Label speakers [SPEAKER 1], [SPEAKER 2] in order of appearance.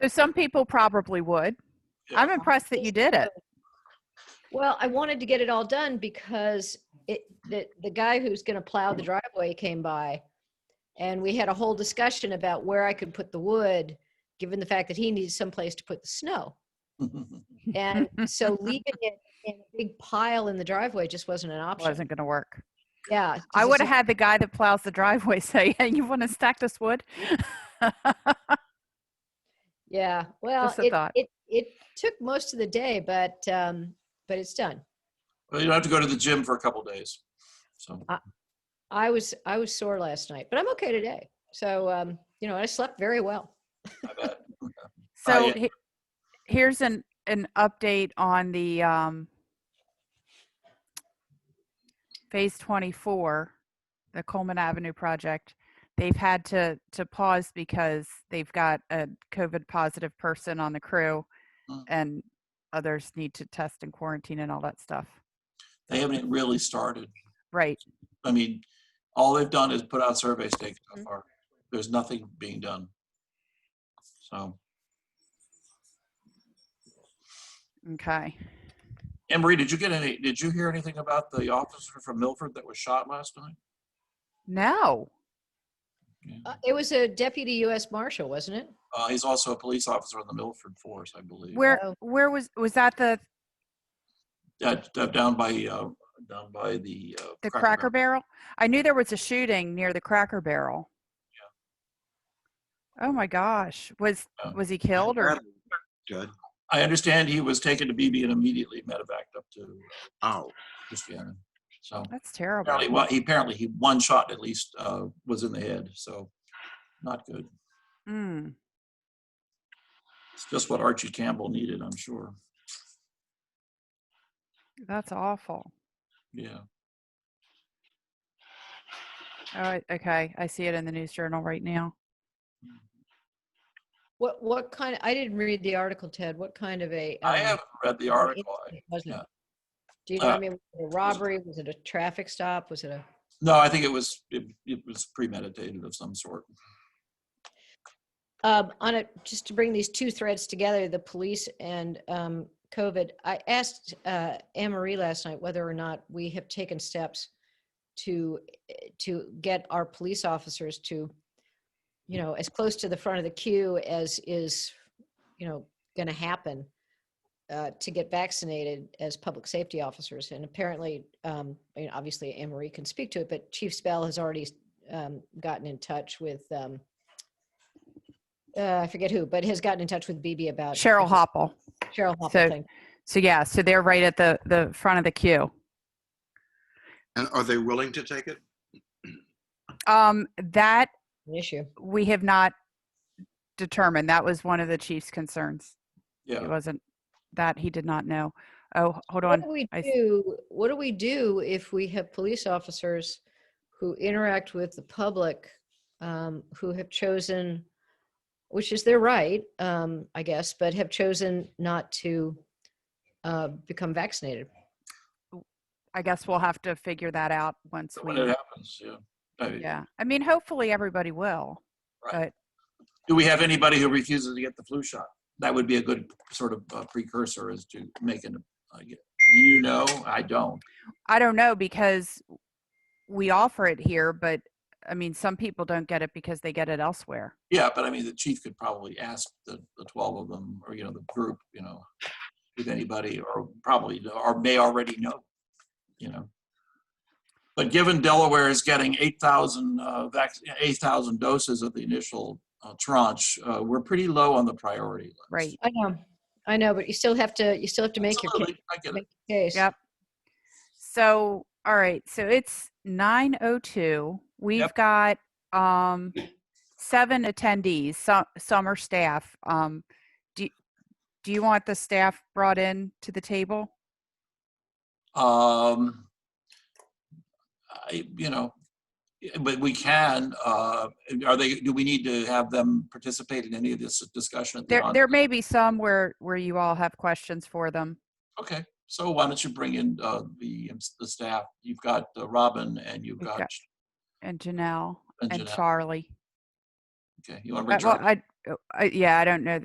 [SPEAKER 1] So some people probably would. I'm impressed that you did it.
[SPEAKER 2] Well, I wanted to get it all done because it, the, the guy who's gonna plow the driveway came by. And we had a whole discussion about where I could put the wood, given the fact that he needed someplace to put the snow. And so leaving it in a big pile in the driveway just wasn't an option.
[SPEAKER 1] Wasn't going to work.
[SPEAKER 2] Yeah. 'cause
[SPEAKER 1] I
[SPEAKER 2] it's
[SPEAKER 1] would have
[SPEAKER 2] like-
[SPEAKER 1] had the guy that plows the driveway say, "Hey, you want to stack this wood?"
[SPEAKER 3] Oh,
[SPEAKER 2] Yeah, well,
[SPEAKER 1] Just a
[SPEAKER 2] it,
[SPEAKER 1] thought.
[SPEAKER 2] it, it took most of the day, but, um, but it's done.
[SPEAKER 3] Well, you don't have to go to the gym for a couple days. So
[SPEAKER 2] I was, I was sore last night, but I'm okay today. So, um, you know, I slept very well.
[SPEAKER 3] I bet.
[SPEAKER 1] So
[SPEAKER 3] yeah.
[SPEAKER 1] he- here's an an update on the um, phase 24, the Coleman Avenue project. They've had to to pause because they've got a COVID positive person on the crew,
[SPEAKER 3] Mm.
[SPEAKER 1] and others need to test and quarantine and all that stuff.
[SPEAKER 3] They haven't really started.
[SPEAKER 1] Right.
[SPEAKER 3] I mean, all they've done is put out survey stakes
[SPEAKER 1] Mm-hmm.
[SPEAKER 3] so far. There's nothing being done. So,
[SPEAKER 1] Okay.
[SPEAKER 3] Emery, did you get any, did you hear anything about the officer from Milford that was shot last night?
[SPEAKER 1] No.
[SPEAKER 2] Uh, It was a deputy US Marshal, wasn't it?
[SPEAKER 3] Uh, he's also a police officer on the Milford force, I believe.
[SPEAKER 1] Where
[SPEAKER 2] Oh.
[SPEAKER 1] where was was that the
[SPEAKER 3] Uh, d- Down by, uh, down by the. uh,
[SPEAKER 1] The Cracker Barrel? I knew there was a shooting near the Cracker Barrel. Oh my gosh. Was,
[SPEAKER 3] Yeah.
[SPEAKER 1] was he killed or?
[SPEAKER 4] Judd,
[SPEAKER 3] I understand he was taken to BB and immediately medevaced up to uh,
[SPEAKER 4] ow.
[SPEAKER 3] Christiana. So
[SPEAKER 1] That's terrible.
[SPEAKER 3] apparently, well, he apparently he one shot at least uh, was in the head. So not good.
[SPEAKER 1] Mm.
[SPEAKER 3] It's just what Archie Campbell needed, I'm sure.
[SPEAKER 1] That's awful.
[SPEAKER 3] Yeah.
[SPEAKER 1] All right. Oh, Okay. I see it in the news journal right now.
[SPEAKER 2] What, what kind, I didn't read the article, Ted. What kind of a?
[SPEAKER 3] I
[SPEAKER 2] um,
[SPEAKER 3] haven't read the article. I-
[SPEAKER 2] incident was it?
[SPEAKER 3] yeah.
[SPEAKER 2] Do you know,
[SPEAKER 3] Uh,
[SPEAKER 2] I mean, was it a robbery? Was it a traffic stop? Was it a?
[SPEAKER 3] No, I think it was it, it was premeditated of some sort.
[SPEAKER 2] Um, on it, just to bring these two threads together, the police and um, COVID, I asked uh, Anne Marie last night whether or not we have taken steps to, eh, to get our police officers to, you know, as close to the front of the queue as is, you know, going to happen uh, to get vaccinated as public safety officers. And apparently, um, I mean, obviously Anne Marie can speak to it, but Chief Spell has already um, gotten in touch with, um, uh, I forget who, but has gotten in touch with BB about
[SPEAKER 1] Cheryl
[SPEAKER 2] Hop.
[SPEAKER 1] Hopple.
[SPEAKER 2] Cheryl Hopple
[SPEAKER 1] So-
[SPEAKER 2] thing.
[SPEAKER 1] So yeah, so they're right at the, the front of the queue.
[SPEAKER 4] And are they willing to take it?
[SPEAKER 1] Um, that
[SPEAKER 2] An issue.
[SPEAKER 1] we have not determined. That was one of the chief's concerns. It
[SPEAKER 3] Yeah.
[SPEAKER 1] wasn't that he did not know. Oh, hold
[SPEAKER 2] What
[SPEAKER 1] on.
[SPEAKER 2] do we
[SPEAKER 1] I s-
[SPEAKER 2] do? What do we do if we have police officers who interact with the public, um, who have chosen, which is their right, um, I guess, but have chosen not to uh, become vaccinated?
[SPEAKER 1] I guess we'll have to figure that out once
[SPEAKER 3] When it
[SPEAKER 1] we,
[SPEAKER 3] happens, yeah. I mean,
[SPEAKER 1] yeah. I mean, hopefully everybody will.
[SPEAKER 3] Do we have anybody who refuses to get the flu shot? That would be a good sort of uh, precursor as to making. Uh, you know, I don't.
[SPEAKER 1] I don't know because we offer it here, but I mean, some people don't get it because they get it elsewhere.
[SPEAKER 3] Yeah, but I mean, the chief could probably ask the, the twelve of them, or, you know, the group, you know, if anybody, or probably, or may already know, you know. But given Delaware is getting eight thousand, uh, vac, eight thousand doses of the initial uh, tranche, uh, we're pretty low on the priority list.
[SPEAKER 1] Right.
[SPEAKER 2] I know, I know, but you still have to, you still have to make your ca-
[SPEAKER 3] Absolutely, I get it.
[SPEAKER 2] make your case.
[SPEAKER 1] Yep. So, all right. So it's 902. We've
[SPEAKER 3] Yep.
[SPEAKER 1] got um seven attendees, some some are staff. Um do do you want the staff brought in to the table?
[SPEAKER 3] Um, I, you know, yeah, but we can, uh, are they, do we need to have them participate in any of this discussion? at the
[SPEAKER 1] There
[SPEAKER 3] on-
[SPEAKER 1] there may be some where where you all have questions for them.
[SPEAKER 3] Okay, so why don't you bring in uh, the, um, s- the staff? You've got uh, Robin and you've
[SPEAKER 1] We've
[SPEAKER 3] got
[SPEAKER 1] got And Janelle
[SPEAKER 3] and
[SPEAKER 1] and
[SPEAKER 3] Jeanette.
[SPEAKER 1] Charlie.
[SPEAKER 3] Okay, you want to
[SPEAKER 1] Uh,
[SPEAKER 3] bring
[SPEAKER 1] Well,
[SPEAKER 3] Charlie?
[SPEAKER 1] I, uh, I yeah, I don't know